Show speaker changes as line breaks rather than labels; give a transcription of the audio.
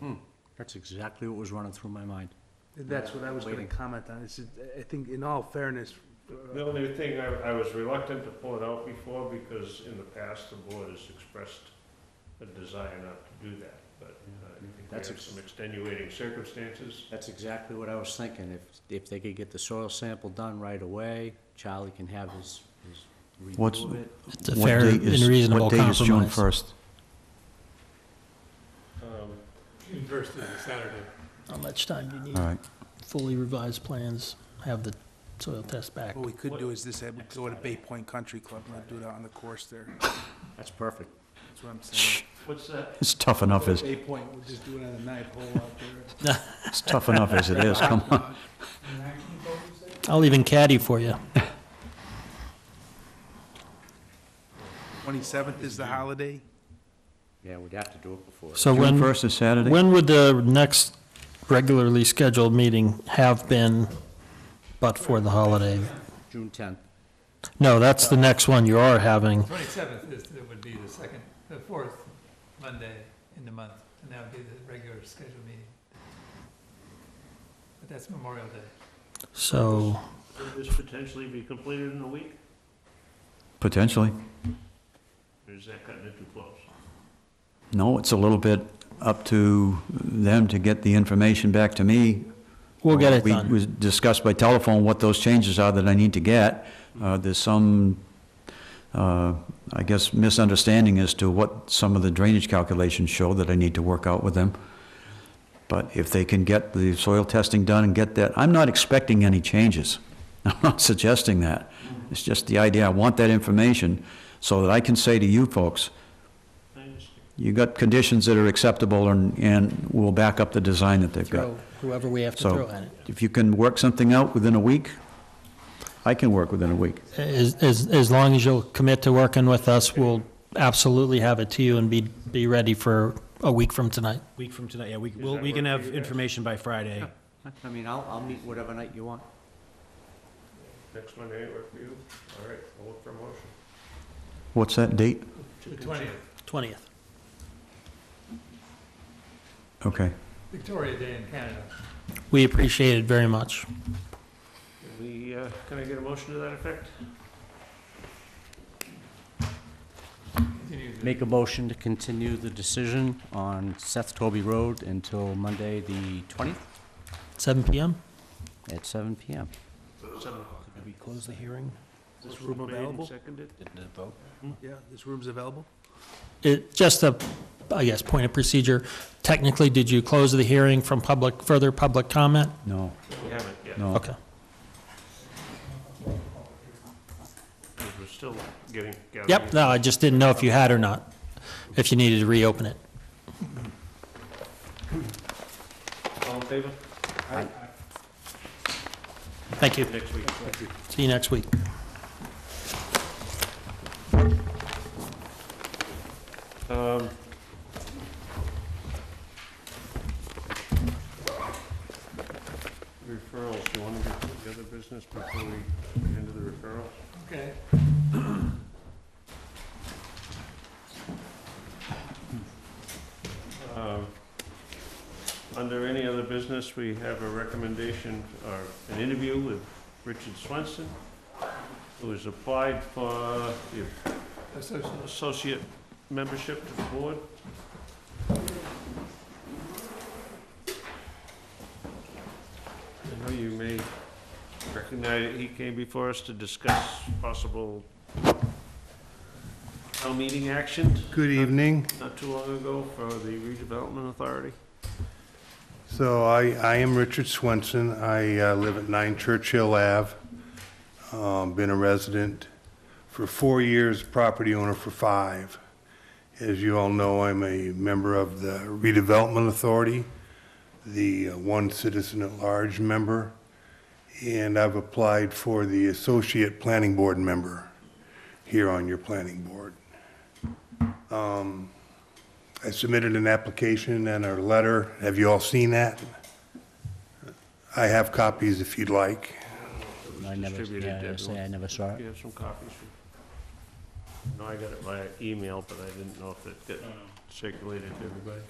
Hmm. That's exactly what was running through my mind.
That's what I was gonna
Waiting.
comment on, is, I think in all fairness,
The only thing, I, I was reluctant to pull it out before because in the past, the board has expressed a desire not to do that, but uh, I think we
That's
have
ex-
some extenuating circumstances.
That's exactly what I was thinking. If, if they could get the soil sample done right away, Charlie can have his, his
What's-
review of it.
It's a
What
fair
date
and
is-
reasonable
What date is June
compromise.
1st?
Um,
June first is a Saturday.
How much time do you
All
need?
right.
Fully revised plans, have the soil test back.
what we could do is this, I would go to Bay Point Country Club and I'd do it out on the course there,
That's perfect.
that's what I'm saying.
What's that?
It's tough enough as,
Bay Point, we'll just do it on the ninth hole out there.
it's tough enough as it is, come on.
I'll even caddy for you.
Twenty-seventh is the holiday,
Yeah, we'd have to do it before.
So
June
when,
1st is Saturday?
when would the next regularly scheduled meeting have been but for the holiday?
June tenth.
No, that's the next one you are having.
Twenty-seventh is, it would be the second, the fourth Monday in the month, and that would be the regular scheduled meeting. But that's Memorial Day.
So,
Could this potentially be completed in a week?
Potentially.
Or is that cutting it too close?
No, it's a little bit up to them to get the information back to me.
we'll get it
We-
done.
We discussed by telephone what those changes are that I need to get. Uh, There's some, uh, I guess, misunderstanding as to what some of the drainage calculations show that I need to work out with them. But if they can get the soil testing done and get that, I'm not expecting any changes. I'm not suggesting that. It's just the idea, I want that information so that I can say to you folks,
I understand.
you got conditions that are acceptable and, and we'll back up the design that they've got.
Throw whoever we have to
So-
throw at it.
If you can work something out within a week, I can work within a week.
As, as, as long as you'll commit to working with us, we'll absolutely have it to you and be, be ready for a week from tonight.
Week from tonight, yeah, we,
Does
we'll-
that
we can
work for
have
you guys?
information by Friday.
I mean, I'll, I'll meet whatever night you want.
Next Monday, work for you? All right, I'll look for a motion.
What's that date?
The twentieth,
20th.
Okay.
Victoria Day in Canada.
We appreciate it very much.
Can we, uh, can I get a motion to that effect?
Continue the-
Make a motion to continue the decision on Seth Toby Road until Monday, the twentieth,
7 PM?
at seven PM.
Seven o'clock.
Did we close the hearing?
Is this
Motion
room
made and
available?
Seconded.
Did it vote?
yeah, this room's available?
It, just a, I guess, point of procedure. Technically, did you close the hearing from public, further public comment?
No,
We haven't yet.
no.
Okay.
We're still getting. gathering
Yep, no, I just didn't know if you had or not, if you needed to reopen it.
All in favor?
Thank you.
Next week.
See you next week.
Um, Referrals, you want to get to the other business before we get into the referrals?
Okay.
Um, Under any other business, we have a recommendation, or an interview with Richard Swenson, who has applied for the
Association.
associate membership to the board. I know you may recognize, he came before us to discuss possible town meeting action
Good evening.
not too long ago for the redevelopment authority.
So I, I am Richard Swenson. I uh, live at 9 Churchill Ave. Um, Been a resident for four years, property owner for five. As you all know, I'm a member of the redevelopment authority, the uh, one citizen at large member, and I've applied for the associate planning board member here on your planning board. I submitted an application and a letter. Have you all seen that? I have copies if you'd like.
I never,
Distributed
yeah, I
to
say I
everyone.
never saw
You
it.
have some copies? for- No, I got it by email, but I didn't know if it got circulated to everybody.